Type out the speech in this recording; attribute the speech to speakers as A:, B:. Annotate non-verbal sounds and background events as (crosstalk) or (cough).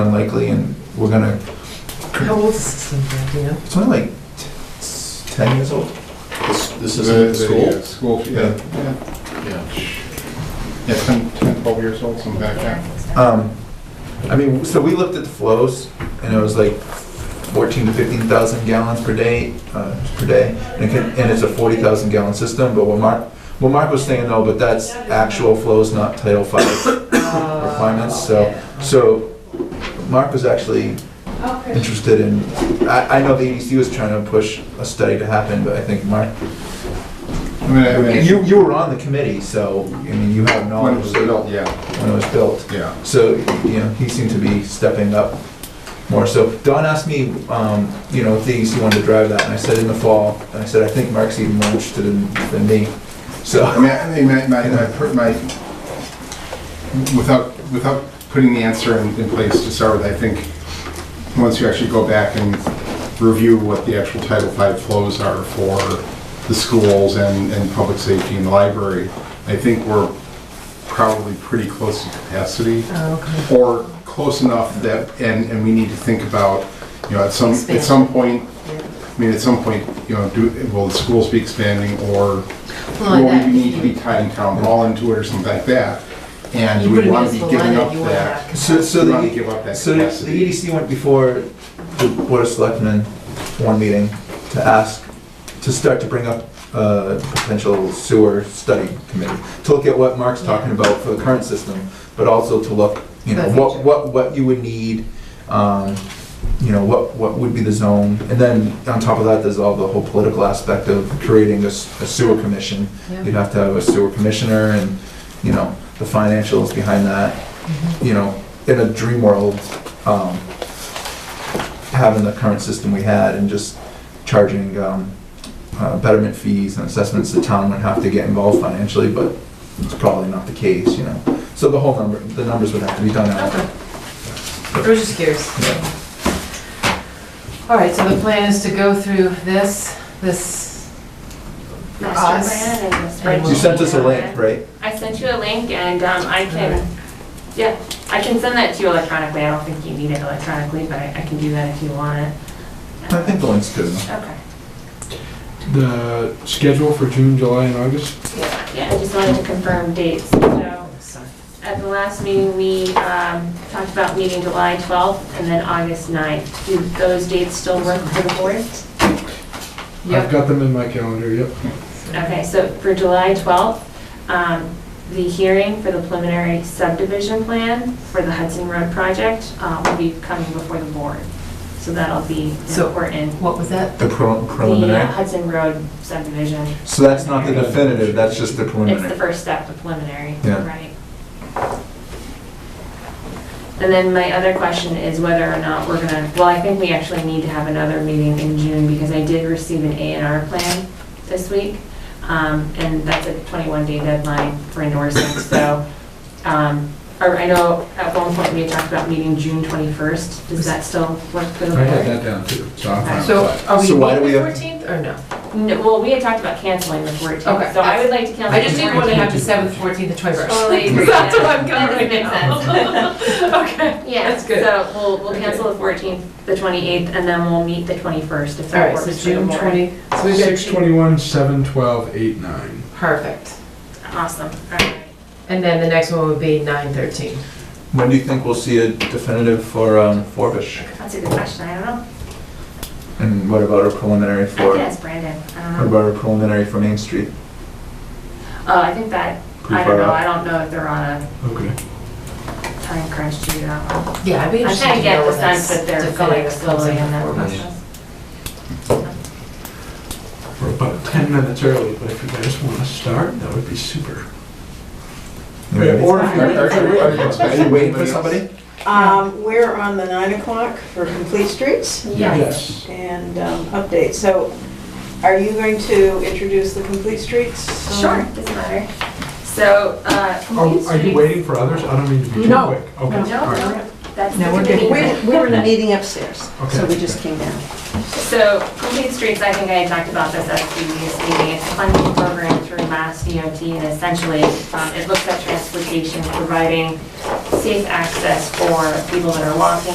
A: unlikely, and we're gonna,
B: How old is this thing, Brad, do (laughs) you know?
A: it's only like t- s- 10 years old.
C: This, this
D: The-
C: isn't
D: the,
C: school?
D: uh, School, yeah, yeah,
C: Yeah.
D: yeah, 10, 10, 12 years old, something like that.
A: Um, I mean, so we looked at the flows, and it was like 14 to 15,000 gallons per day, uh, per day, and it can- and it's a 40,000 gallon system, but what Mark, what Mark was saying though, but that's actual flows, not Title V
B: Uh,
A: requirements, so, so Mark was actually interested in, I, I know the EDC was trying to push a study to happen, but I think Mark
D: I mean, I mean.
A: You, you were on the committee, so, I mean, you have
D: When it
A: knowledge
D: was
A: that-
D: built, yeah,
A: when it was built.
D: yeah.
A: So, you know, he seemed to be stepping up more. So Don asked me, um, you know, if the EDC wanted to drive that, and I said in the fall, and I said, I think Mark's even more interested in, than me.
D: I
A: So, (laughs)
D: mean, I mean, my, my, my, per- my, without, without putting the answer in, in place to start with, I think, once you actually go back and review what the actual Title V flows are for the schools and, and public safety and the library, I think we're probably pretty close to capacity.
B: Oh, okay.
D: or close enough that, and, and we need to think about, you know, at some, at
B: Expand.
D: some point,
B: Yeah.
D: I mean, at some point, you know, do, will the schools be expanding or
B: Well,
D: will
B: that-
D: we need to be tying town hall into it or something like that? And
B: You
D: do
B: put
D: we
B: a
D: want to be
B: municipal line
D: giving up
B: that you want
D: that.
B: back.
A: so, so
D: Do we want to
A: the,
D: give up that
A: so the E
D: capacity?
A: EDC went before the Board of Selectmen, one meeting, to ask, to start to bring up a potential sewer study committee, to look at what Mark's talking about for the current system, but also to look, you know,
B: The
A: what,
B: future.
A: what, what you would need, um, you know, what, what would be the zone, and then on top of that, there's all the whole political aspect of creating a s- a sewer commission.
B: Yeah.
A: You'd have to have a sewer commissioner and, you know, the financials behind that,
B: Mm-hmm.
A: you know, in a dream world, um, having the current system we had and just charging, um, uh, betterment fees and assessments, the town would have to get involved financially, but it's probably not the case, you know. So the whole number, the numbers would have to be done out.
B: Okay. I was just curious. All right, so the plan is to go through this, this, for us.
E: Master plan and the
B: And
E: spreadsheet.
A: You sent us a link, right?
E: I sent you a link and um, I can, yeah, I can send that to you electronically. I don't think you need it electronically, but I I can do that if you want it.
A: I think the link's good enough.
E: Okay,
F: the schedule for June, July, and August?
E: yeah, yeah, I just wanted to confirm dates. So
B: sorry.
E: at the last meeting, we um, talked about meeting July 12th and then August 9th. Do those dates still work for the board?
F: I've
B: Yep,
F: got them in my calendar, yep.
E: Okay, so for July 12th, um, the hearing for the preliminary subdivision plan for the Hudson Road project uh, will be coming before the board. So that'll be
B: So-
E: important.
B: what was that?
A: The pre-
E: The uh,
A: preliminary.
E: Hudson Road subdivision,
A: So that's not the definitive, that's just the
E: it's the
A: preliminary.
E: first step, the preliminary,
A: Yeah.
E: right? And then my other question is whether or not we're gonna, well, I think we actually need to have another meeting in June because I did receive an A and R plan this week. Um, and that's a 21-day deadline for endorsing, so, um, or I know at one point we had talked about meeting June 21st. Does that still work for the
F: I had
E: board?
F: that down too, so I'm fine.
B: So are we
A: So why do
B: meeting
A: we
B: the
A: have-
B: fourteenth or no?
E: No, well, we had talked about canceling the 14th.
B: Okay.
E: So I would like to cancel.
B: I just
E: the
B: didn't want to
E: 14th.
B: have the seventh, fourteenth, and twenty-first.
E: Totally agree.
B: That's what I'm
E: That
B: going right
E: doesn't make sense.
B: now. (laughs) Okay.
E: Yeah,
B: That's good.
E: so we'll, we'll
B: Okay.
E: cancel the 14th, the 28th, and then we'll meet the 21st if
B: All
E: that
B: right,
E: works
B: so
E: for the
B: June
E: board.
B: twenty, so we've got
F: Six
B: June.
F: twenty-one, seven twelve, eight nine.
B: Perfect.
E: Awesome, all right.
B: And then the next one would be nine thirteen.
A: When do you think we'll see a definitive for, um, Forbush?
E: That's a good question, I don't know.
A: And what about a preliminary
E: I could
A: for,
E: ask Brandon, I
A: what
E: don't know.
A: about a preliminary for Main Street?
E: Oh, I think that,
A: Pretty
E: I don't
A: far
E: know,
A: out.
E: I don't know if they're on a
F: Okay.
E: time crunch due to that one.
B: Yeah, I'd be
E: I
B: interested
E: kind
B: to
E: of get
B: know
E: the
B: when that's
E: sense that they're going
B: definitive
E: slowly
B: closing
E: in that
B: before we-
E: process.
F: We're about ten minutes early, but if you guys want to start, that would be super.
A: Are
D: Are- are- are you
A: you
D: expecting
A: waiting for
D: anybody else?
A: somebody?
G: Um, We're on the 9 o'clock for Complete Streets
F: Yes.
G: and um, update. So are you going to introduce the Complete Streets? um,
E: Sure, doesn't matter. So, uh,
F: Oh, Are
E: Complete
F: are you
E: Streets-
F: waiting for others? I don't mean to be too quick.
H: No.
F: Okay,
E: No,
F: all right.
E: no, that's the
B: No, we're
E: committee.
B: good.
H: We're,
E: (laughs)
H: we're in a meeting upstairs, so
F: Okay.
H: we just came down.
E: So Complete Streets, I think I had talked about this at a previous meeting, it's a funding program through Mass DOT and essentially um, it looks at transportation, providing safe access for people that are walking,